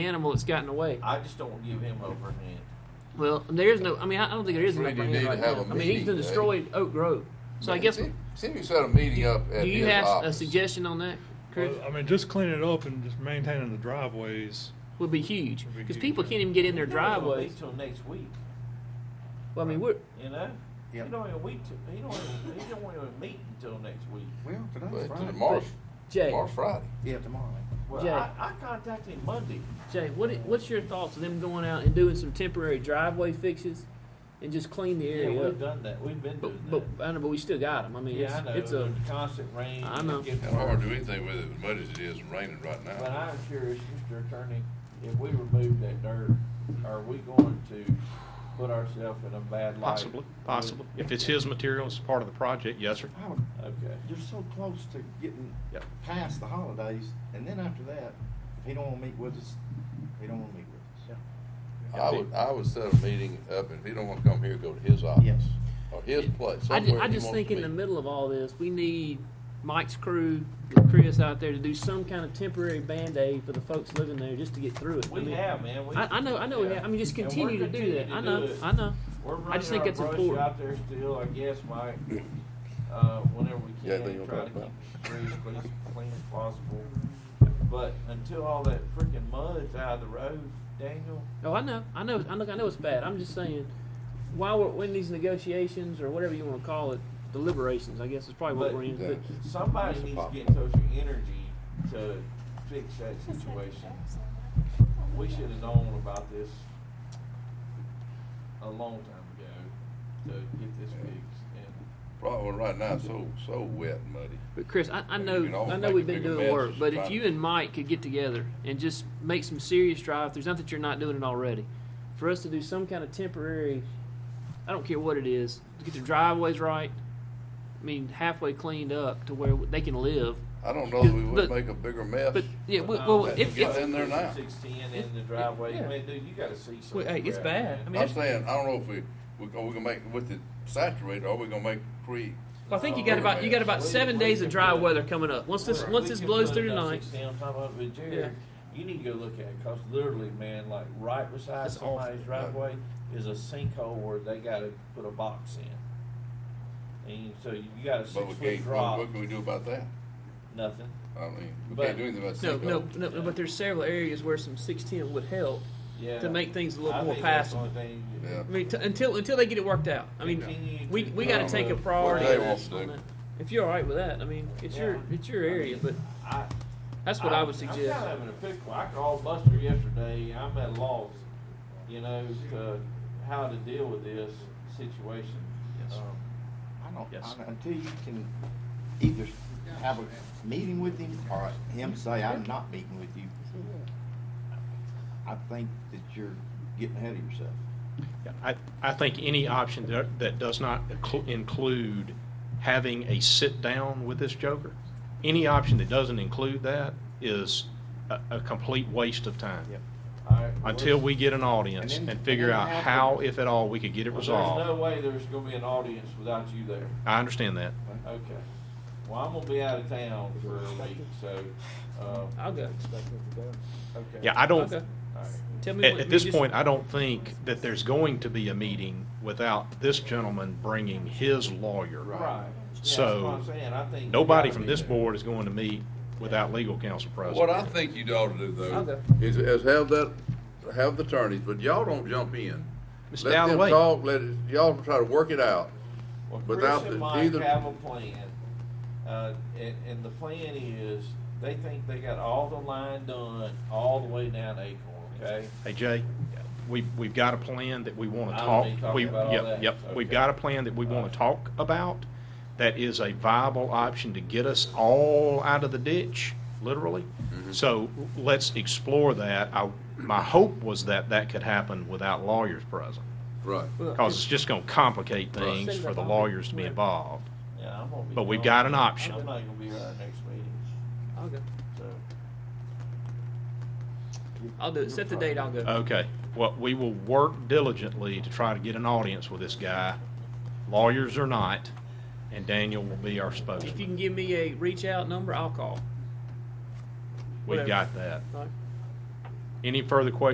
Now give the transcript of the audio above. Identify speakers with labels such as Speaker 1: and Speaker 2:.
Speaker 1: animal that's gotten away.
Speaker 2: I just don't want to give him upper hand.
Speaker 1: Well, there is no. I mean, I don't think there is an
Speaker 3: We do
Speaker 1: upper hand
Speaker 3: need to
Speaker 1: right
Speaker 3: have
Speaker 1: now.
Speaker 3: a
Speaker 1: I mean, he's
Speaker 3: meeting,
Speaker 1: been
Speaker 3: Dave.
Speaker 1: destroyed Oak Grove. So I guess.
Speaker 3: See, see if you set a meeting up at
Speaker 1: Do you
Speaker 3: his
Speaker 1: have a
Speaker 3: office.
Speaker 1: suggestion on that, Chris?
Speaker 4: Well, I mean, just cleaning it up and just maintaining the driveways.
Speaker 1: Would be huge
Speaker 4: Would be
Speaker 1: because
Speaker 4: huge,
Speaker 1: people
Speaker 4: yeah.
Speaker 1: can't even get in their driveways.
Speaker 2: Until next week,
Speaker 1: Well, I mean, we're
Speaker 2: you know.
Speaker 5: Yep.
Speaker 2: He don't even wait. To, he don't. Even, he don't even meet until next week.
Speaker 5: Well,
Speaker 3: But
Speaker 5: today's
Speaker 3: to
Speaker 5: Friday.
Speaker 3: tomorrow,
Speaker 1: Jay.
Speaker 3: tomorrow Friday.
Speaker 5: Yeah, tomorrow.
Speaker 2: Well,
Speaker 1: Jay.
Speaker 2: I, I contacted him Monday.
Speaker 1: Jay, what i- what's your thoughts of them going out and doing some temporary driveway fixes and just clean the
Speaker 2: Yeah,
Speaker 1: area
Speaker 2: we've
Speaker 1: up?
Speaker 2: done that. We've been doing
Speaker 1: But, but I know, but we still got them. I
Speaker 2: that.
Speaker 1: mean,
Speaker 2: Yeah, I
Speaker 1: it's,
Speaker 2: know.
Speaker 1: it's a
Speaker 2: There's constant rain.
Speaker 1: I
Speaker 2: It's
Speaker 1: know.
Speaker 2: getting
Speaker 3: How hard
Speaker 2: worse.
Speaker 3: to do anything with it as much as it is raining right now.
Speaker 2: But I'm curious, Mr. Attorney, if we remove that dirt, are we going to put ourselves in a bad light?
Speaker 6: Possibly, possibly. If it's his material, it's part of the project, yes, sir.
Speaker 5: I would,
Speaker 2: Okay.
Speaker 5: you're so close to getting
Speaker 6: Yep.
Speaker 5: past the holidays, and then after that, if he don't want to meet with us, he don't want to meet with us.
Speaker 3: I would, I would set a meeting up, and if he don't wanna come here, go to his office,
Speaker 5: Yes.
Speaker 3: or his place,
Speaker 1: I, ju-
Speaker 3: somewhere
Speaker 1: I
Speaker 3: he
Speaker 1: just
Speaker 3: wants
Speaker 1: think
Speaker 3: to
Speaker 1: in the
Speaker 3: meet.
Speaker 1: middle of all this, we need Mike's crew, and Chris out there to do some kind of temporary band aid for the folks living there just to get through it. I
Speaker 2: We
Speaker 1: mean,
Speaker 2: have, man. We-
Speaker 1: I, I know, I know. We
Speaker 2: yeah.
Speaker 1: have. I mean, just
Speaker 2: And we're
Speaker 1: continue to do
Speaker 2: continuing
Speaker 1: that. I
Speaker 2: to
Speaker 1: know,
Speaker 2: do it.
Speaker 1: I know.
Speaker 2: We're running
Speaker 1: I just think
Speaker 2: our
Speaker 1: it's
Speaker 2: brush
Speaker 1: important. Mm-hmm.
Speaker 2: out there still, I guess, Mike. Uh, whenever we
Speaker 3: Yeah, they
Speaker 2: can,
Speaker 3: don't
Speaker 2: try to
Speaker 3: talk about
Speaker 2: keep the streets as clean as possible. But until all that freaking mud's out of the road, Daniel,
Speaker 1: Oh, I know, I know, I know, I know it's bad. I'm just saying, while we're in these negotiations or whatever you want to call it, deliberations, I guess is probably what
Speaker 2: But-
Speaker 1: we're in.
Speaker 3: Yeah.
Speaker 1: But
Speaker 2: somebody
Speaker 3: That's a
Speaker 2: needs to
Speaker 3: problem.
Speaker 2: get in touch with Energy to fix that situation. We should have known about this a long time ago to get this fixed. And
Speaker 3: Problem right now, it's so, so wet and muddy.
Speaker 1: But Chris, I, I
Speaker 3: You
Speaker 1: know,
Speaker 3: can always
Speaker 1: I know
Speaker 3: make
Speaker 1: we've
Speaker 3: a
Speaker 1: been
Speaker 3: bigger
Speaker 1: doing
Speaker 3: mess
Speaker 1: work,
Speaker 3: just
Speaker 1: but if
Speaker 3: trying
Speaker 1: you
Speaker 3: to-
Speaker 1: and Mike could get together and just make some serious drive-throughs, not that you're not doing it already, for us to do some kind of temporary, I don't care what it is, to get the driveways right, I mean halfway cleaned up to where they can live.
Speaker 3: I don't know that we
Speaker 1: But-
Speaker 3: would make a bigger mess.
Speaker 1: But yeah, we,
Speaker 2: But
Speaker 1: well,
Speaker 2: now that
Speaker 1: if,
Speaker 3: um, you
Speaker 1: if
Speaker 3: got in there now.
Speaker 2: Sixteen in the driveway,
Speaker 1: yeah.
Speaker 2: man, dude, you gotta see something.
Speaker 1: well, hey, it's
Speaker 2: crap,
Speaker 1: bad.
Speaker 2: man.
Speaker 1: I mean,
Speaker 3: I'm
Speaker 1: that's,
Speaker 3: saying, I don't know if we, we, are we gonna make, with the saturated, are we gonna make creek?
Speaker 1: well, I think you got about you got about seven days of dry weather coming up. Once this once this blows through tonight,
Speaker 2: I'm talking about with Jared, you need to go look at it, cause literally, man, like right beside
Speaker 1: That's awful.
Speaker 2: somebody's driveway is a sinkhole where they gotta put a box in. And so you got a
Speaker 3: But we
Speaker 2: six foot
Speaker 3: can't, what,
Speaker 2: drop,
Speaker 3: what can we do about that?
Speaker 2: nothing.
Speaker 3: I mean, we
Speaker 2: But-
Speaker 3: can't do anything about
Speaker 1: no,
Speaker 3: sinkhole.
Speaker 1: no, no, no, but there's several areas where some six ten would help.
Speaker 2: Yeah.
Speaker 1: To make things a little
Speaker 2: I
Speaker 1: more
Speaker 2: think that's the
Speaker 1: passable.
Speaker 2: only thing you-
Speaker 3: Yeah.
Speaker 1: I mean, t- until until they get it worked out. I mean,
Speaker 2: Continue
Speaker 1: we
Speaker 2: to
Speaker 1: we got to
Speaker 3: Um,
Speaker 1: take a
Speaker 3: what
Speaker 1: priority.
Speaker 3: they
Speaker 1: on
Speaker 3: want
Speaker 1: that-
Speaker 3: to
Speaker 1: on
Speaker 3: do.
Speaker 1: that. If you're all right with that, I mean, it's your
Speaker 2: Yeah.
Speaker 1: it's your area, but
Speaker 2: I,
Speaker 1: that's what I, would suggest.
Speaker 2: I'm kind of in a pickle. I called Buster yesterday. I'm at a loss, you know, to how to deal with this situation.
Speaker 6: Yes.
Speaker 2: Um,
Speaker 5: I don't,
Speaker 6: Yes.
Speaker 5: I- until you can either have a meeting with him or him say, I'm not meeting with you, I think that you're getting ahead of yourself.
Speaker 6: Yeah, I, I think any option that, that does not inclu- include having a sit-down with this joker, any option that doesn't include that is a, a complete waste of time.
Speaker 2: all right, well,
Speaker 6: Until we get an audience
Speaker 5: And then-
Speaker 6: and figure
Speaker 5: and then
Speaker 6: out
Speaker 5: have
Speaker 6: how,
Speaker 5: to-
Speaker 6: if at all, we could get it
Speaker 2: well,
Speaker 6: resolved.
Speaker 2: There's no way there's going to be an audience without you there.
Speaker 6: I understand that.
Speaker 2: Okay. Well, I'm going to be out of town for a week, so. Um,
Speaker 1: I'll go.
Speaker 2: okay.
Speaker 6: Yeah, I don't,
Speaker 1: Okay.
Speaker 2: All right.
Speaker 1: Tell me
Speaker 6: at,
Speaker 1: what-
Speaker 6: at
Speaker 1: you
Speaker 6: this
Speaker 1: just-
Speaker 6: point, I don't think that there's going to be a meeting without this gentleman bringing his lawyer.
Speaker 2: Right. Yeah,
Speaker 6: So,
Speaker 2: that's what I'm saying. I think you
Speaker 6: Nobody
Speaker 2: gotta
Speaker 6: from
Speaker 2: be
Speaker 6: this
Speaker 2: there.
Speaker 6: board is going to meet without legal counsel present.
Speaker 3: What I think you ought to do though,
Speaker 1: Okay.
Speaker 3: is, is have that, have the attorneys, but y'all don't jump in.
Speaker 6: Mr.
Speaker 3: Let them
Speaker 6: Dalloway.
Speaker 3: talk, let, it- y'all try to work it out.
Speaker 2: Well,
Speaker 3: Without
Speaker 2: Chris
Speaker 3: the-
Speaker 2: and Mike
Speaker 3: either-
Speaker 2: have a plan, uh, and, and the plan is they think they got all the line done all the way down to Acorn. Okay.
Speaker 6: Hey Jay, we, we've got a plan that we want
Speaker 2: I
Speaker 6: to
Speaker 2: don't
Speaker 6: talk.
Speaker 2: need to talk
Speaker 6: We,
Speaker 2: about all
Speaker 6: yep,
Speaker 2: that.
Speaker 6: yep, we've
Speaker 2: Okay.
Speaker 6: got a plan that we want to talk about that is a viable option to get us all out of the ditch, literally.
Speaker 3: Mm-hmm.
Speaker 6: So let's explore that. I, my hope was that that could happen without lawyers present,
Speaker 3: Right.
Speaker 1: Well,
Speaker 6: because it's just going to complicate
Speaker 3: Right.
Speaker 6: things for the lawyers to be involved.
Speaker 2: Yeah, I'm gonna be.
Speaker 6: But we've
Speaker 2: gone.
Speaker 6: got an option.
Speaker 2: I'm not gonna be at our next meeting.
Speaker 1: I'll go.
Speaker 2: So
Speaker 1: I'll do it. Set the date. I'll go.
Speaker 6: Okay, well, we will work diligently to try to get an audience with this guy, lawyers or not, and Daniel will be our
Speaker 1: if you
Speaker 6: spokesman.
Speaker 1: can give me a reach out number, I'll call.
Speaker 6: We've
Speaker 1: whatever.
Speaker 6: got that.
Speaker 1: All right.
Speaker 6: Any further questions